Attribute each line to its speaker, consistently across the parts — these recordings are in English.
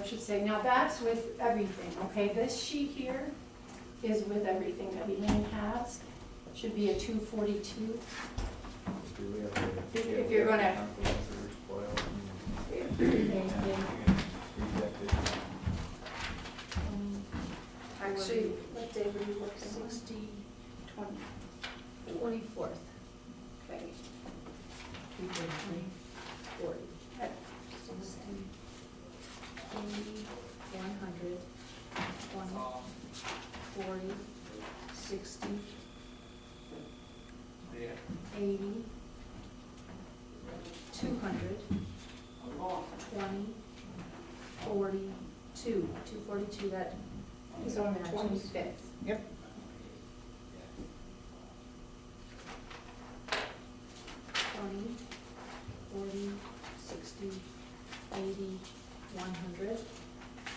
Speaker 1: I should say. Now, that's with everything, okay? This sheet here is with everything that Elaine has. Should be a two forty-two. If- if you're gonna-
Speaker 2: Actually,
Speaker 1: what day were you looking? Sixty, twenty.
Speaker 2: Twenty-fourth.
Speaker 1: Okay.
Speaker 2: We did twenty-fourth. One hundred, twenty, forty, sixty, eighty, two hundred, twenty, forty-two, two forty-two, that,
Speaker 1: It's on the twenty-fifth.
Speaker 2: twenty, forty, sixty, eighty, one hundred,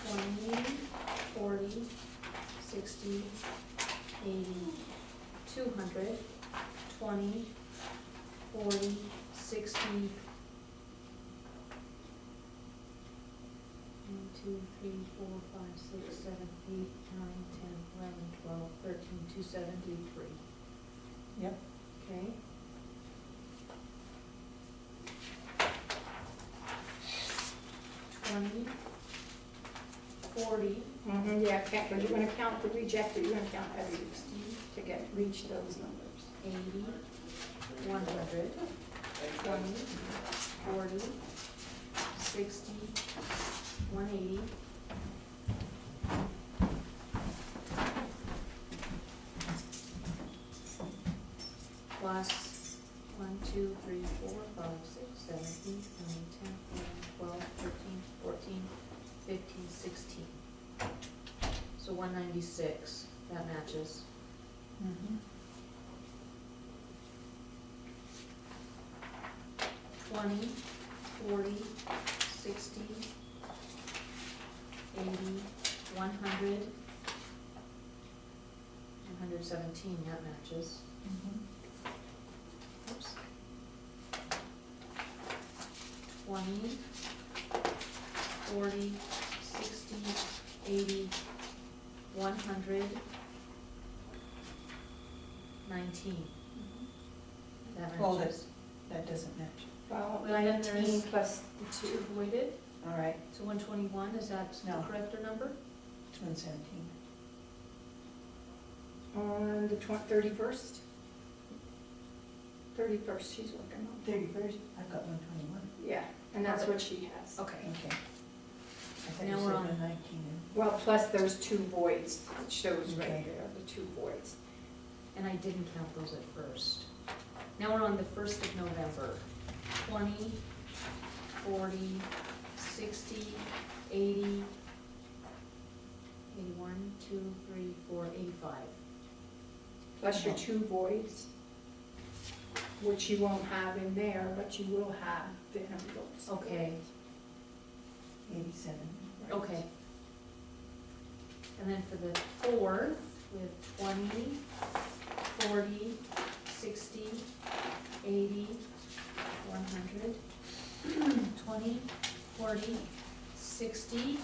Speaker 2: twenty, forty, sixty, eighty, two hundred, twenty, forty, sixty. One, two, three, four, five, six, seven, eight, nine, ten, eleven, twelve, thirteen, two seventy-three.
Speaker 3: Yep.
Speaker 2: Okay. Twenty, forty,
Speaker 1: Mm-hmm, yeah, count, but you're gonna count the rejected, you're gonna count every to get, reach those numbers.
Speaker 2: eighty, one hundred, twenty, forty, sixty, one eighty. Plus one, two, three, four, five, six, seven, eight, nine, ten, eleven, twelve, thirteen, fourteen, fifteen, sixteen. So one ninety-six, that matches. twenty, forty, sixty, eighty, one hundred. One hundred seventeen, that matches.
Speaker 3: Mm-hmm.
Speaker 2: Oops. Twenty, forty, sixty, eighty, one hundred, nineteen, that matches.
Speaker 3: Well, that's- That doesn't match.
Speaker 1: Well,
Speaker 2: Well, then there
Speaker 1: nineteen
Speaker 2: is-
Speaker 1: plus
Speaker 2: Two
Speaker 1: two,
Speaker 2: voided,
Speaker 3: All right,
Speaker 2: so one twenty-one, is that the
Speaker 3: No.
Speaker 2: corrector number?
Speaker 3: it's one seventeen.
Speaker 1: on the twen- thirty-first? Thirty-first, she's working on.
Speaker 3: Thirty-first, I've got one twenty-one.
Speaker 1: Yeah, and that's what she has.
Speaker 2: Okay.
Speaker 3: Okay. I thought you
Speaker 2: Now
Speaker 3: said
Speaker 2: we're on-
Speaker 3: one nineteen.
Speaker 1: Well, plus there's two voids, it shows right
Speaker 3: Okay.
Speaker 1: there, the two voids.
Speaker 2: And I didn't count those at first. Now we're on the first of November. Twenty, forty, sixty, eighty, eighty-one, two, three, four, eighty-five.
Speaker 1: Plus your two voids, which you won't have in there, but you will have the envelopes.
Speaker 2: Okay.
Speaker 3: Eighty-seven.
Speaker 2: Okay. And then for the fourth, we have twenty, forty, sixty, eighty, one hundred, twenty, forty, sixty,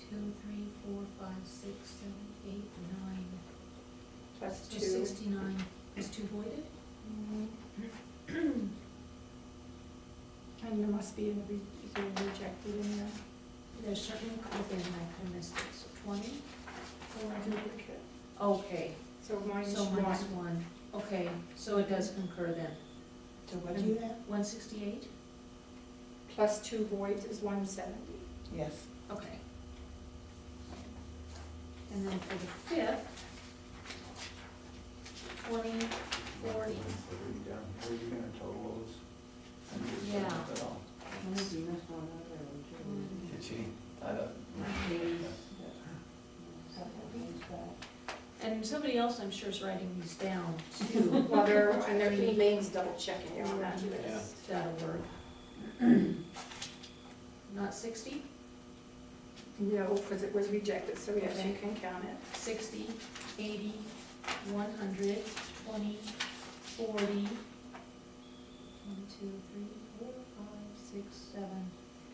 Speaker 2: two, three, four, five, six, seven, eight, nine,
Speaker 1: Plus
Speaker 2: so
Speaker 1: two.
Speaker 2: sixty-nine. Is two voided?
Speaker 1: Mhm. And there must be a re- is there a rejected in there
Speaker 2: There's certainly, okay, I kinda missed it, so twenty,
Speaker 1: or a duplicate.
Speaker 2: okay.
Speaker 1: So minus
Speaker 2: So minus
Speaker 1: one.
Speaker 2: one, okay, so it does concur then.
Speaker 3: So what do you have?
Speaker 2: One sixty-eight?
Speaker 1: Plus two voids is one seventy.
Speaker 3: Yes.
Speaker 2: Okay. And then for the fifth, twenty, forty, Yeah. one,
Speaker 3: Mm-hmm.
Speaker 2: eighty. And somebody else, I'm sure, is writing these down too.
Speaker 1: Well, they're, and they're, Elaine's double checking on that
Speaker 4: Yeah.
Speaker 1: list.
Speaker 2: That'll work. Not sixty?
Speaker 1: No, because it was rejected, so yes, you
Speaker 2: Okay.
Speaker 1: can count it.
Speaker 2: sixty, eighty, one hundred, twenty, forty. One, two, three, four, five, six, seven.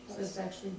Speaker 2: So it's actually